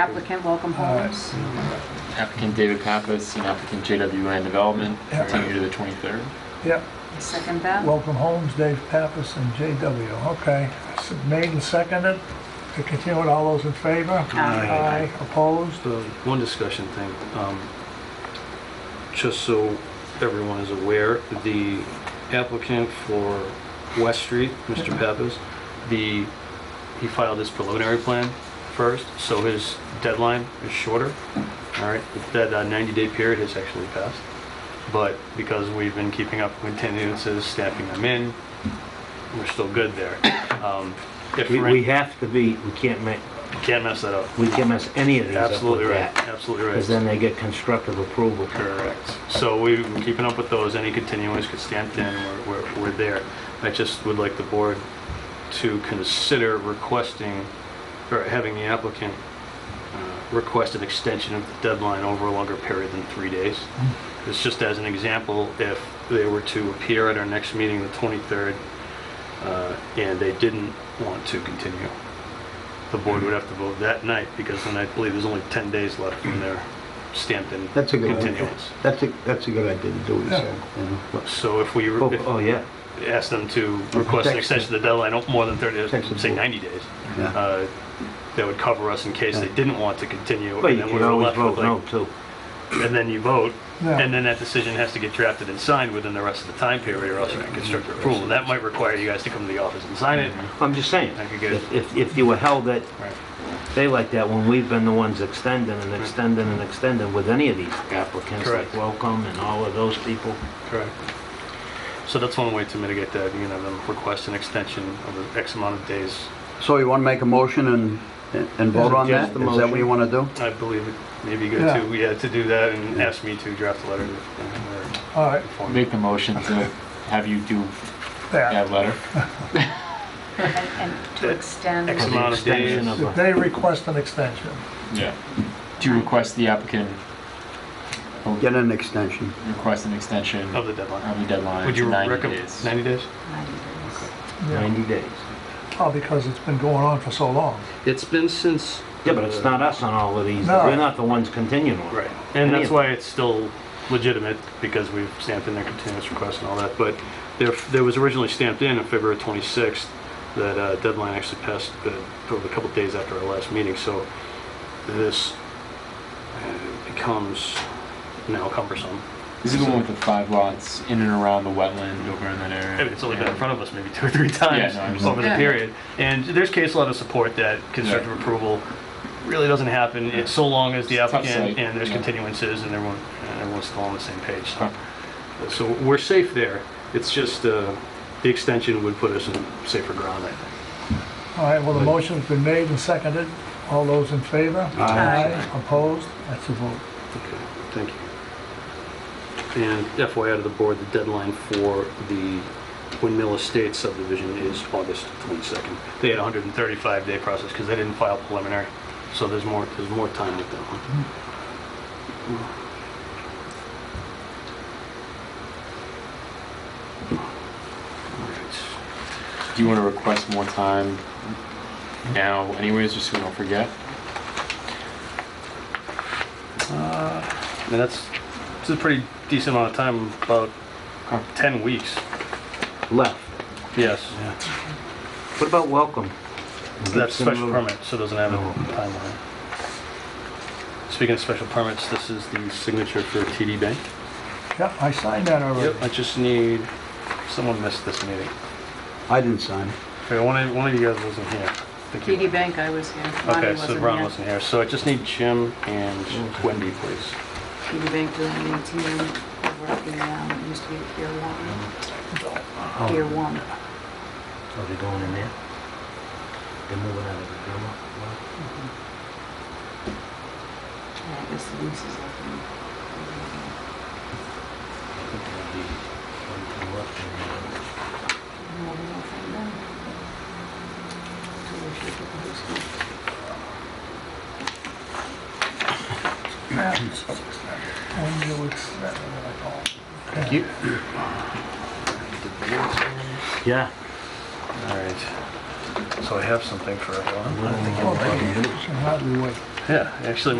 Applicant Welcome Homes. Applicant David Pappas and applicant JWN Development, Yeah. continue to the 23rd. Yep, Second that. welcome homes, Dave Pappas and JW. Okay, S- made and seconded to continue it. All those in favor? Aye. Aye, opposed? Just, uh, One discussion thing, um, just so everyone is aware, the applicant for West Street, Mr. Pappas, the, he filed his preliminary plan first, so his deadline is shorter, all right? That uh, 90-day period has actually passed, but because we've been keeping up with continuances, stamping them in, we're still good there. Um, If We, we we have to be, we can't make, can't mess that up. we can't mess any of these up Absolutely with right, that. absolutely right. Because then they get constructive approval. Correct. So we- we're keeping up with those, any continuance gets stamped in, we're- we're, we're there. I just would like the board to consider requesting, or having the applicant uh, request an extension of the deadline over a longer period than three days. It's just as an example, if they were to appear at our next meeting, the 23rd, uh, and they didn't want to continue, the board would have to vote that night, because then I believe there's only 10 days left from their stamped in That's a good idea. continuance. That's a, that's a good idea to do, you Yeah. said. you know. So Mm-hmm. if we Oh, re- oh, yeah. if- ask them to request an Protection. extension of the deadline, no more than 30, Protection. days, say 90 days, Yeah. uh, that would cover us in case they didn't want to continue. But and you then can we're always left with vote no, like- too. And then you vote, Yeah. and then that decision has to get drafted and signed within the rest of the time period, or else you're not constructive approval. That might require you guys to come to the office and sign it. I'm just saying, I could get it. if, if- if you were held at, Right. they like that, when we've been the ones extending and extending and extending with any of these applicants, like Correct. Welcome and all of those people. Correct. So that's one way to mitigate that, you know, them request an extension of X amount of days. So you want to make a motion and, and vote on that? Just the Is that what you motion. want to do? I believe it may be Yeah. good to, we had to do that and ask me to draft a letter. to- or- All right, inform me. Make the motion to have you do there. that letter. And and to extend, Ex- for the amount of days. extension of If a- they request an extension, Yeah. To request the applicant, Get an extension. request an extension Of of the deadline. the deadline Would you to 90 recommend, days. 90 days? 90 days. Ninety days. oh, because it's been going on for so long. It's been since... Yeah, but it's not us on all of these, No. we're not the ones continuing. Right, and Any that's of why it's still legitimate, because we've stamped in their continuous request and all that, but there, there was originally stamped in on February 26th, that uh, deadline actually passed uh, probably a couple of days after our last meeting, so this uh, becomes now cumbersome. This is the one with the five lots in and around the wetland over in that I mean, area. it's only been in front of us maybe two or three times no, I understand. over the Yeah. period. And there's case law to support that constructive approval really doesn't happen, it's so long as the It's a tough applicant site, and there's yeah. continuances and uh, everyone, and everyone's still on the same page, so. So we're safe there, it's just, uh, the extension would put us in safer ground, I think. All right, well, the motion's been made and seconded. All those in favor? Aye. Opposed? That's a vote. Okay, thank you. And FYI to the board, the deadline for the Windmill Estates subdivision is August 22nd. They had a 135-day process because they didn't file preliminary, so there's more, there's more time with that one. All Do you want to request more time now anyways, just so we don't forget? right. And that's, it's a pretty decent amount of time, about 10 weeks. Left. Yes. What about Welcome? That's Gibson special Road. permit, so it doesn't have a No. timeline. Speaking of special permits, this is the signature for TD Bank. Yeah, I signed that already. I just need, someone missed this meeting. I didn't sign it. Okay, one of, one of you guys wasn't here. I think you- TD Bank, I was here. Ronnie Okay, so wasn't Ron here. wasn't here, so I just need Jim and Wendy, please. TD Bank doing an 18, over at the, um, it used to be Pier 1. Oh. Pier 1. Are they Oh, going in there? They're moving out of the drama? I guess the lease is up. and- Well, we don't find out. So we should get the house here. When you accept, I call. Thank you. Yeah. Mm-hmm. All right. So I have something for everyone. Can hardly wait. Yeah, actually,